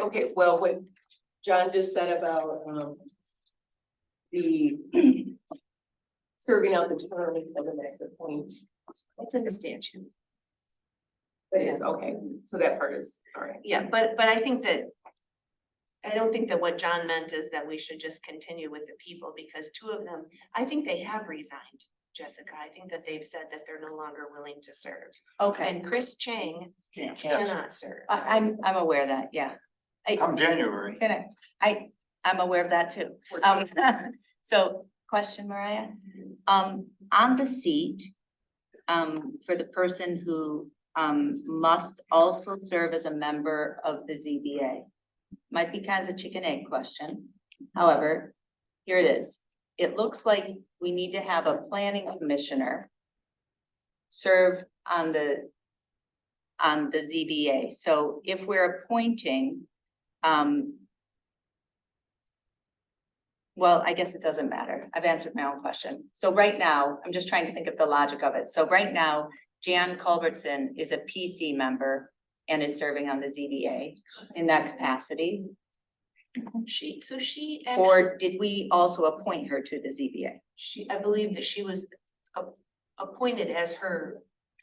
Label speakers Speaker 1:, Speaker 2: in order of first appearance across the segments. Speaker 1: Okay, well, what John just said about, um. The. Serving out the term of the next appoint,
Speaker 2: It's in the statute.
Speaker 1: but it's okay, so that part is, all right.
Speaker 2: Yeah, but, but I think that. I don't think that what John meant is that we should just continue with the people because two of them, I think they have resigned. Jessica, I think that they've said that they're no longer willing to serve
Speaker 3: Okay,
Speaker 2: and Chris Chang
Speaker 4: Can't.
Speaker 2: cannot serve.
Speaker 3: I, I'm, I'm aware of that, yeah.
Speaker 4: Come January.
Speaker 3: Can I, I, I'm aware of that too.
Speaker 1: We're
Speaker 3: Um, so, question, Mariah? Um, on the seat, um, for the person who, um, must also serve as a member of the ZBA. Might be kind of a chicken egg question, however, here it is. It looks like we need to have a planning commissioner serve on the, on the ZBA. So if we're appointing, um, well, I guess it doesn't matter. I've answered my own question. So right now, I'm just trying to think of the logic of it. So right now, Jan Culbertson is a PC member and is serving on the ZBA in that capacity.
Speaker 2: She, so she. actually-
Speaker 3: Or did we also appoint her to the ZBA?
Speaker 2: She, I believe that she was a- appointed as her,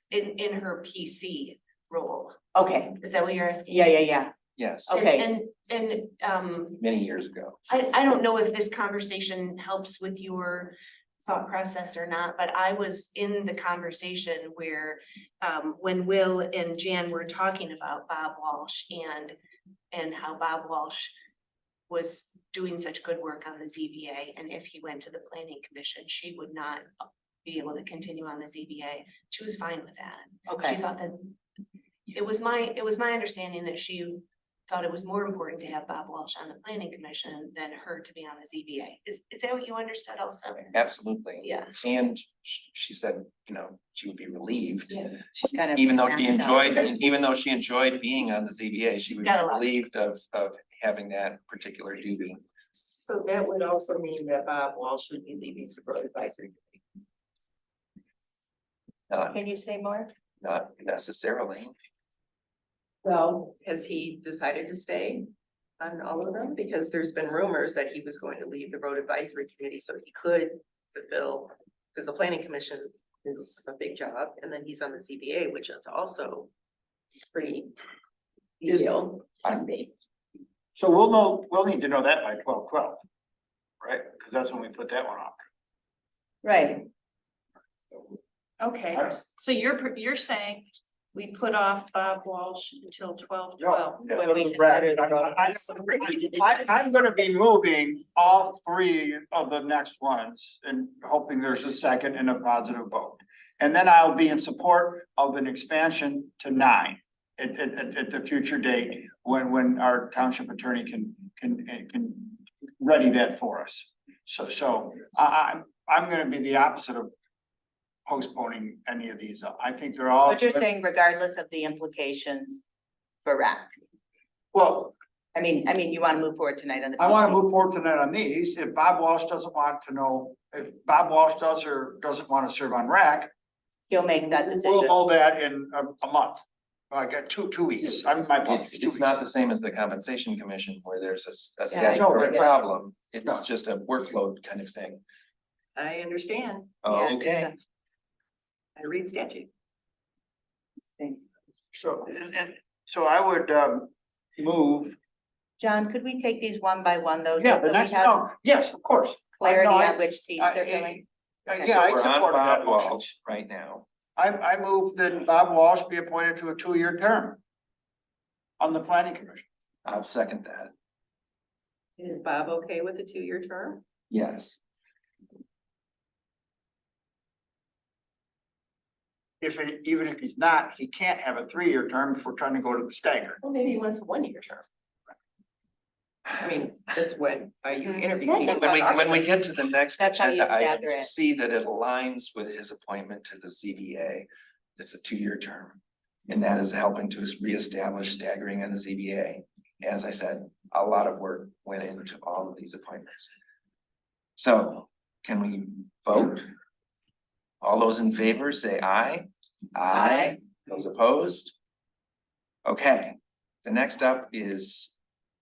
Speaker 2: in, in her PC role.
Speaker 3: Okay,
Speaker 2: Is that what you're asking?
Speaker 3: yeah, yeah, yeah.
Speaker 4: Yes,
Speaker 2: And-
Speaker 3: okay.
Speaker 2: And, and, um,
Speaker 4: many years ago.
Speaker 2: I, I don't know if this conversation helps with your thought process or not, but I was in the conversation where, um, when Will and Jan were talking about Bob Walsh and, and how Bob Walsh was doing such good work on the ZBA, and if he went to the planning commission, she would not be able to continue on the ZBA. She was fine with that. She
Speaker 3: Okay,
Speaker 2: thought that, it was my, it was my understanding that she thought it was more important to have Bob Walsh on the planning commission than her to be on the ZBA. Is, is that what you understood also?
Speaker 4: Absolutely.
Speaker 2: Yeah,
Speaker 4: And sh- she said, you know, she would be relieved,
Speaker 3: she's kind of.
Speaker 4: even though she
Speaker 3: backed out.
Speaker 4: enjoyed, even though she enjoyed being on the ZBA, she
Speaker 2: She's
Speaker 4: would be
Speaker 2: got a lot.
Speaker 4: relieved of, of having that particular duty.
Speaker 1: So that would also mean that Bob Walsh should be leaving for road advisory. Committee.
Speaker 4: Not,
Speaker 3: Can you say more?
Speaker 4: not necessarily.
Speaker 1: Well, has he decided to stay on all of them? Because there's been rumors that he was going to leave the road advisory committee, so he could fulfill. Because the planning commission is a big job, and then he's on the ZBA, which is also pretty
Speaker 5: Is-
Speaker 1: detailed.
Speaker 4: I'm
Speaker 5: So we'll know, we'll need to know that by twelve twelve, right? Because that's when we put that one off.
Speaker 3: Right,
Speaker 6: Okay,
Speaker 5: I-
Speaker 6: so you're, pr- you're saying we put off Bob Walsh until twelve twelve?
Speaker 5: No,
Speaker 3: When we
Speaker 5: Brad,
Speaker 3: consider the road.
Speaker 5: I- I, I'm gonna be moving all three of the next ones and hoping there's a second and a positive vote. And then I'll be in support of an expansion to nine at, at, at, at the future date when, when our township attorney can, can, eh, can ready that for us. So, so I, I, I'm gonna be the opposite of postponing any of these. I think they're all.
Speaker 3: but you're saying regardless of the implications for RAC.
Speaker 5: Well,
Speaker 3: I mean, I mean, you want to move forward tonight on the.
Speaker 5: I wanna
Speaker 3: PC.
Speaker 5: move forward tonight on these, if Bob Walsh doesn't want to know, if Bob Walsh does or doesn't wanna serve on RAC.
Speaker 3: He'll make that
Speaker 5: We'll
Speaker 3: decision.
Speaker 5: know that in a, a month, I got two, two weeks, I'm my.
Speaker 4: It's, it's not the same as the compensation commission where there's a s- a
Speaker 1: Yeah, I
Speaker 4: statutory
Speaker 5: get it.
Speaker 4: problem. It's
Speaker 5: No.
Speaker 4: just a workload kind of thing.
Speaker 1: I understand,
Speaker 3: Yeah,
Speaker 4: Okay,
Speaker 1: I read statute.
Speaker 5: So, and, and, so I would, um, move,
Speaker 3: John, could we take these one by one though?
Speaker 5: yeah,
Speaker 3: just
Speaker 5: the
Speaker 3: so we
Speaker 5: next,
Speaker 3: have
Speaker 5: no, yes, of course.
Speaker 3: Clarity
Speaker 5: I-
Speaker 3: on which seats
Speaker 5: I-
Speaker 3: they're
Speaker 5: I-
Speaker 3: filling?
Speaker 5: Uh,
Speaker 3: Okay.
Speaker 5: Yeah,
Speaker 4: so
Speaker 5: I
Speaker 4: we're on
Speaker 5: support that
Speaker 4: Bob
Speaker 5: motion.
Speaker 4: Walsh right now.
Speaker 5: I, I move that Bob Walsh be appointed to a two-year term on the planning commission.
Speaker 4: I'll second that.
Speaker 1: Is Bob okay with a two-year term?
Speaker 4: Yes.
Speaker 5: If, it- even if he's not, he can't have a three-year term if we're trying to go to the stagger.
Speaker 1: Well, maybe he wants a one-year term. I mean, that's when, are you
Speaker 3: That's
Speaker 1: interviewing?
Speaker 3: a
Speaker 4: When we, when we get to the next
Speaker 3: That's how you
Speaker 4: agenda,
Speaker 3: stagger
Speaker 4: I
Speaker 3: it.
Speaker 4: see that it aligns with his appointment to the ZBA. It's a two-year term, and that is helping to reestablish staggering on the ZBA. As I said, a lot of work went into all of these appointments. So can we vote? All those in favor, say aye. Those opposed? Okay, the next up is